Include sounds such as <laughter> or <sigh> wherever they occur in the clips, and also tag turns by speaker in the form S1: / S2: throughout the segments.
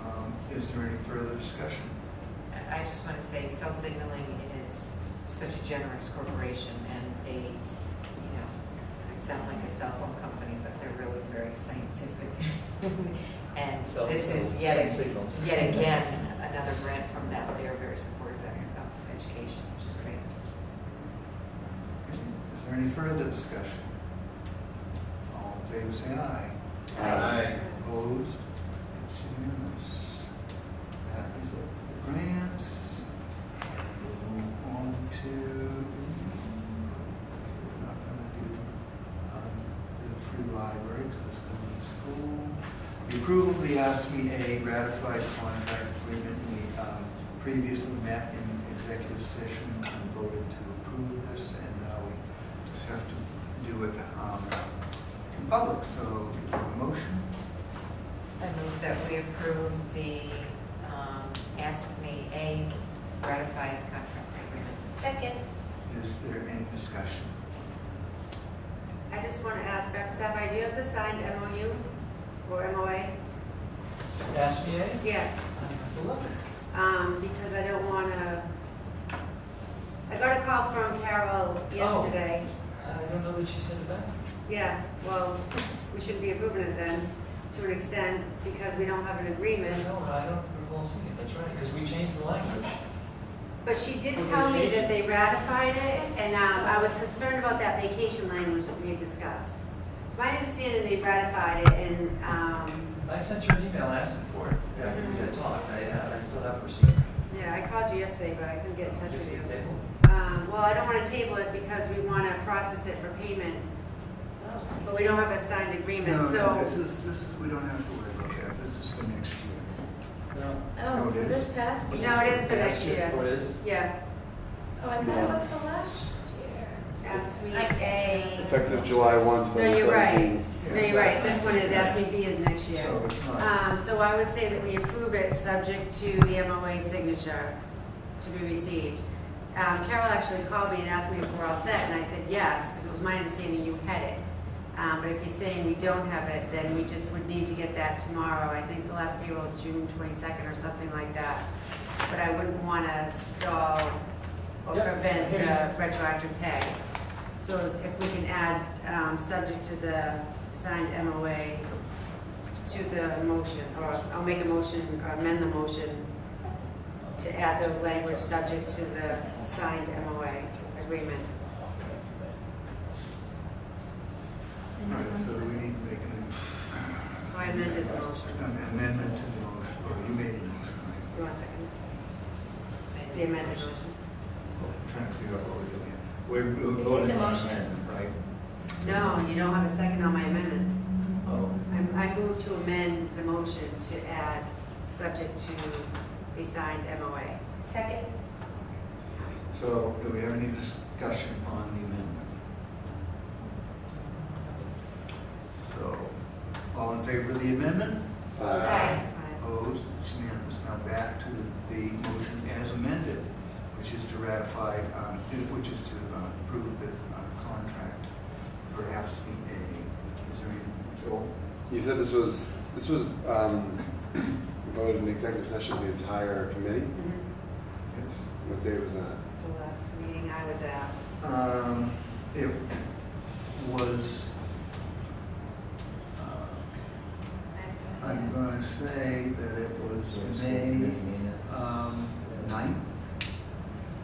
S1: Um, Is there any further discussion?
S2: I just want to say, Cell Signaling is such a generous corporation, and they, you know, I sound like a cell phone company, but they're really very scientific. <laughs> And
S3: Cell
S2: this is
S3: signals,
S2: yet,
S3: cell signals.
S2: yet again, another grant from them. They are very supportive of of education, which is great.
S1: Is there any further discussion? All in favor, say aye.
S3: Aye.
S1: Opposed? It's unanimous. That is it for the grants. And we'll move on to, we're not gonna do, um, the free library, because it's going to the school. The approval of the ASME A ratified contract agreement, we, um, previously met in executive session and voted to approve this, and now we just have to do it, um, in public, so, motion?
S2: I move that we approve the um, Ask Me A ratified contract agreement.
S4: Second,
S1: Is there any discussion?
S4: I just want to ask Dr. Sapphire, do you have the signed MOU or MOA?
S3: Ask me, eh?
S4: Yeah,
S3: I have to look.
S4: um, because I don't want to, I got a call from Carol
S3: Oh.
S4: yesterday.
S3: I don't know what she said about it.
S4: Yeah, well, we shouldn't be approving it then, to an extent, because we don't have an agreement.
S3: No, I don't recall seeing it, that's right, because we changed the language.
S4: But she did
S3: We're gonna
S4: tell me
S3: change
S4: that
S3: it.
S4: they ratified it, and um, I was concerned about that vacation language that we had discussed. It's my understanding they ratified it, and um,
S3: I sent her an email asking for it. Yeah, we had talked, I, uh, I still haven't received it.
S4: Yeah, I called you yesterday, but I couldn't get in touch
S3: Just
S4: with you.
S3: a table.
S4: Um, Well, I don't want to table it because we want to process it for payment, but we don't have a signed agreement,
S1: No, no, this
S4: so.
S1: is, this is, we don't have to worry about that, this is for next year.
S3: No,
S1: No,
S5: Oh,
S1: it
S5: so
S1: is.
S5: this past year?
S4: No, it is for next year.
S3: what is?
S4: Yeah,
S5: Oh, I thought it was the last year.
S4: ask me
S5: I-
S4: A.
S6: Effective July 1,
S4: No, you're right.
S6: 2017.
S4: No, you're right. This one is ask me B is next year.
S1: So it's not,
S4: Um, So I would say that we approve it subject to the MOA signature to be received. Um, Carol actually called me and asked me if we're all set, and I said yes, because it was my understanding you had it. Um, But if you're saying we don't have it, then we just would need to get that tomorrow. I think the last payroll is June 22nd or something like that. But I wouldn't want to stall or
S3: Yep, I
S4: prevent
S3: hear you.
S4: the retroactive pay. So if we can add, um, subject to the signed MOA to the motion, or I'll make a motion, or amend the motion to add the language subject to the signed MOA agreement.
S1: right, so we need to make an
S4: So I amended the motion.
S1: an amendment to the motion, or you made the motion, right?
S4: You want a second? The amended motion?
S1: I'm Trying to figure out what we're doing. We're- We're voting on
S5: motion.
S1: amendment, right?
S4: No, you don't have a second on my amendment.
S1: Oh,
S4: I, I move to amend the motion to add subject to the signed MOA.
S5: Second?
S1: so do we have any discussion on the amendment? So, all in favor of the amendment?
S6: Uh,
S4: Aye.
S1: Opposed, it's unanimous. Now back to the- the motion as amended, which is to ratify, um, which is to uh, approve the uh, contract for AFSCME. Is there any, Joel?
S6: You said this was, this was um, <coughs> voted in executive session, the entire committee?
S4: Mhm.
S1: Yes.
S6: What day was that?
S4: The last meeting I was at.
S1: Um, It was, uh, I'm going to say that it was May um, 9th.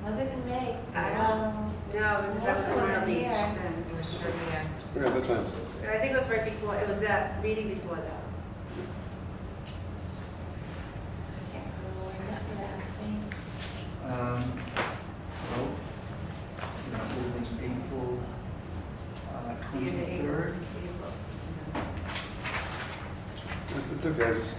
S5: Was it in May?
S4: I
S5: Um,
S4: No, because I was
S5: Melissa
S4: on the
S5: wasn't
S4: beach
S5: here.
S4: then.
S2: You were sure we had
S6: Okay, that's fine.
S4: I think it was right before, it was that meeting before that.
S5: I can't remember when that last meeting.
S1: Um, Well, you know, it was April uh,
S4: Year to April.
S1: 23rd.
S4: April.
S6: It's- It's okay, I just,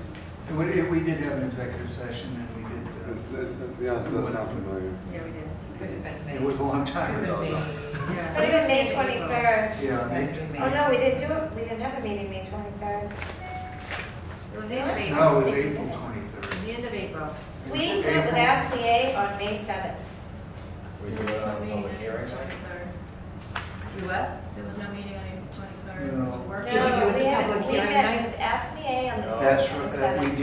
S1: And We we did have an executive session and we
S6: it's-
S1: did, uh,
S6: it's- to be honest, it does sound familiar.
S4: Yeah, we did.
S2: Could have been
S1: uh,
S2: May.
S1: it was a long time
S2: Could
S1: ago.
S2: have been
S1: though.
S2: May.
S4: Yeah.
S5: It would have been May twenty-third.
S1: Yeah,
S2: Could have
S1: May,
S2: been
S5: Oh,
S2: May.
S5: no, we didn't do it, we didn't have a meeting May twenty-third.
S4: It was the end of April.
S1: no, it was April
S5: April.
S4: It
S1: 23rd.
S4: was the end of April.
S5: We did it with
S1: April-
S5: SBA on May seventh.
S7: We do it on public hearings,
S4: You what?
S7: There was no meeting on April twenty-third.
S1: No.
S5: No,
S2: Did you do it at the
S5: we had-
S2: public
S5: We
S2: hearing
S5: met with SBA on the
S7: No.
S1: That's
S5: on the
S1: right, that
S5: seventh.
S1: we did.